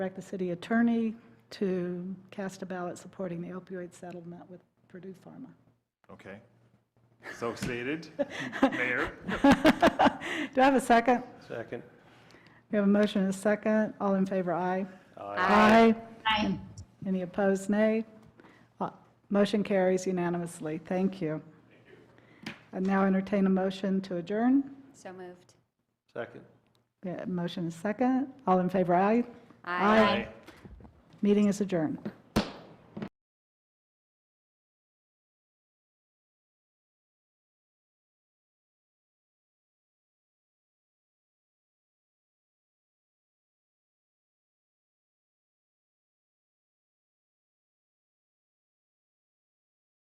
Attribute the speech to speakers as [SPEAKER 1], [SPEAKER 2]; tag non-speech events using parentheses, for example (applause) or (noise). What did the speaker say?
[SPEAKER 1] direct the city attorney to cast a ballot supporting the opioid settlement with Purdue Pharma.
[SPEAKER 2] Okay. So stated, (laughs) Mayor.
[SPEAKER 1] Do I have a second?
[SPEAKER 3] Second.
[SPEAKER 1] We have a motion and a second. All in favor, aye.
[SPEAKER 4] Aye.
[SPEAKER 1] Aye. Any opposed, nay? Uh, Motion carries unanimously. Thank you. I now entertain a motion to adjourn.
[SPEAKER 4] So moved.
[SPEAKER 3] Second.
[SPEAKER 1] We have a Motion and a second. All in favor, aye. Meeting is adjourned.